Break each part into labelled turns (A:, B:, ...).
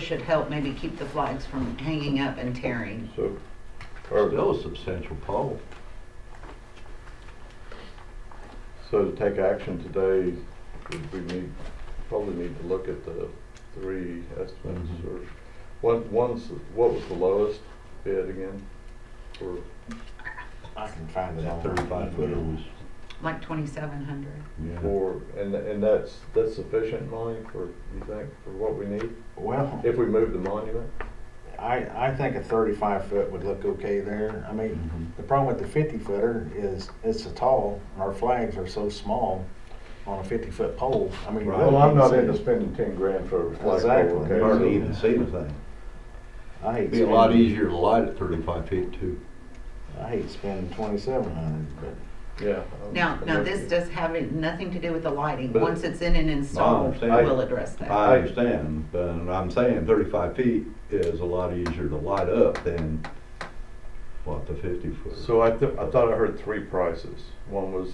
A: should help maybe keep the flags from hanging up and tearing.
B: So,
C: That
B: or,
C: was substantial pole.
B: so to take action today, we need, probably need to look at the three estimates
C: Mhm.
B: or, one, one's, what was the lowest bid again? Or,
D: I can find it
C: That
D: on.
C: thirty-five footer was,
A: Like twenty-seven hundred.
C: yeah.
B: for, and, and that's, that's sufficient money for, you think, for what we need?
D: Well,
B: If we move the monument?
D: I, I think a thirty-five foot would look okay there. I
C: Mm-hmm.
D: mean, the problem with the fifty footer is it's so tall, and our flags are so small on a fifty foot pole. I mean.
C: Well, I'm not into
B: spending ten grand for a
D: flagpole, Exactly. okay?
C: Hardly even see the thing.
D: I hate.
C: It'd be a lot
D: spending-
C: easier to light at thirty-five feet too.
D: I hate spending twenty-seven hundred, but
B: Yeah.
A: Now, now this does have it- nothing to do with the lighting.
C: But-
A: Once it's in and installed,
C: understand.
A: we'll address that.
C: I understand, but I'm saying thirty-five feet is a lot easier to light up than what the fifty foot.
B: So I, th- I thought I heard three prices. One was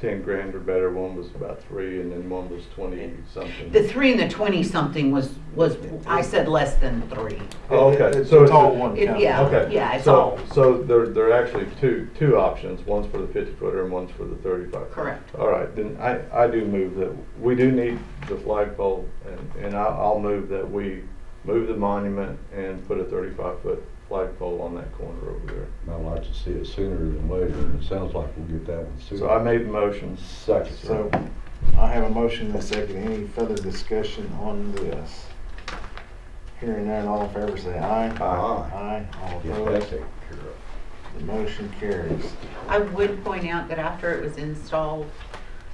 B: ten grand or better, one was about three, and then one was twenty something.
A: The three and the twenty-something was, was, I said less than three.
B: Oh, okay,
D: It's
B: so
D: a
B: it's
D: tall
B: a,
D: one.
A: It-
D: count.
A: yeah.
B: okay.
A: it's
B: so-
A: all-
B: So there, there are actually two, two options, one's for the fifty footer and one's for the thirty-five.
A: Correct.
B: All right, then I, I do move that, we do need the flagpole, and, and I, I'll move that we move the monument and put a thirty-five foot flagpole on that corner over there.
C: I'd like to see it sooner than later, and it sounds like we'll get that one sooner.
B: So I made the motion.
C: Second.
D: So, I have a motion and a second. Any further discussion on this? Hearing none, all in favor say aye.
C: Aye.
D: Aye, all
C: Get that
D: opposed.
C: taken care of.
D: The motion carries.
A: I would point out that after it was installed,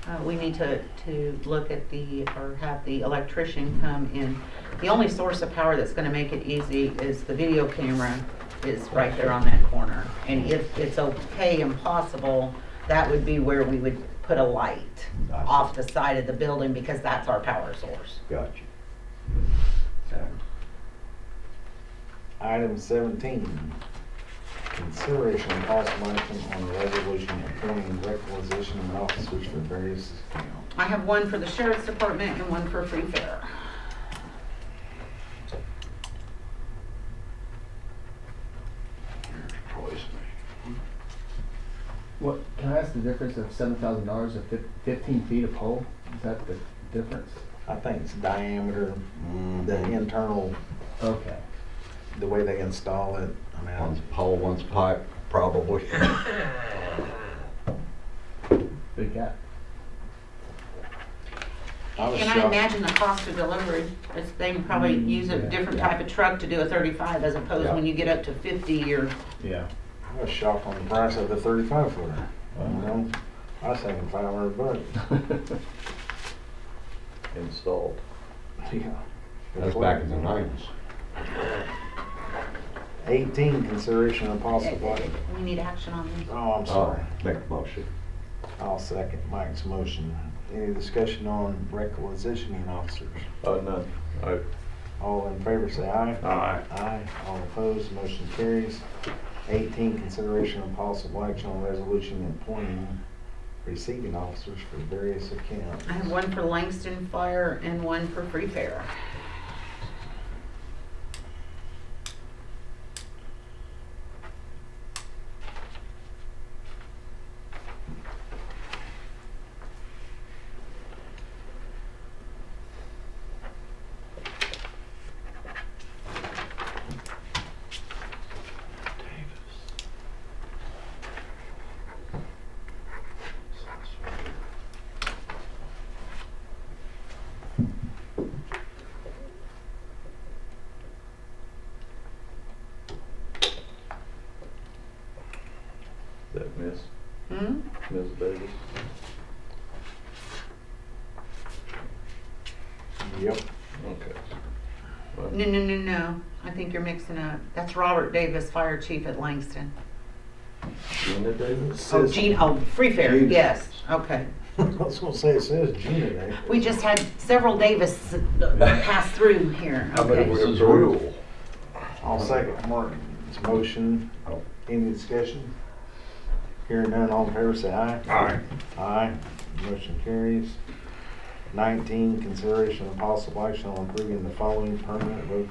A: uh, we need to, to look at the, or have the electrician come in. The only source of power that's gonna make it easy is the video camera is right there on that corner. And if it's okay and possible, that would be where we would put a light
C: Gotcha.
A: off the side of the building because that's our power source.
C: Got you.
D: Item seventeen, consideration of possible action on resolution appointing requisition officers for various accounts.
A: I have one for the sheriff's department and one for free fair.
E: What, can I ask the difference of seven thousand dollars of fif- fifteen feet of pole? Is that the difference?
D: I think it's diameter,
C: Mm,
D: the internal,
E: Okay.
D: the way they install it. I mean,
C: One's
D: I-
C: pole, one's pipe, probably.
E: Big gap.
D: I was
A: And I
D: shocked. Mm-hmm.
A: imagine the cost of delivery, it's, they can probably
E: Mm,
A: use a
E: yeah.
A: different type of truck to do a thirty-five as opposed
C: Yeah.
A: when you get up to fifty or,
E: Yeah.
D: I was shocked on the price of the thirty-five footer. You know, I was thinking five hundred bucks.
B: Installed.
D: Yeah.
C: That's back in the nineties.
D: Eighteen, consideration of possible.
A: we need action on this.
D: Oh, I'm sorry.
C: Make a motion.
D: I'll second Mike's motion. Any discussion on requisitioning officers?
B: Oh, none. I,
D: All in favor, say aye.
B: Aye.
D: Aye. All opposed, motion carries. Eighteen, consideration of possible action on resolution appointing receiving officers for various accounts.
A: I have one for Langston Fire and one for Free Fair.
B: that miss,
A: Hmm?
B: Ms. Davis.
D: Yep.
B: Okay.
A: No, no, no, no. I think you're mixing up. That's Robert Davis, Fire Chief at Langston.
B: Gina Davis?
A: Oh,
D: Says-
A: Gene, oh, Free Fair,
C: Gene.
A: yes, okay.
D: I was gonna say, it says Gina there.
A: We just had several Davis uh, pass through here,
B: I bet
A: okay.
B: it
C: This
B: would
C: is
B: approve.
C: rule.
D: I'll second Mark's motion.
C: Oh.
D: Any discussion? Hearing none, all in favor say aye.
C: Aye.
D: Aye. Motion carries. Nineteen, consideration of possible action on approving the following permanent road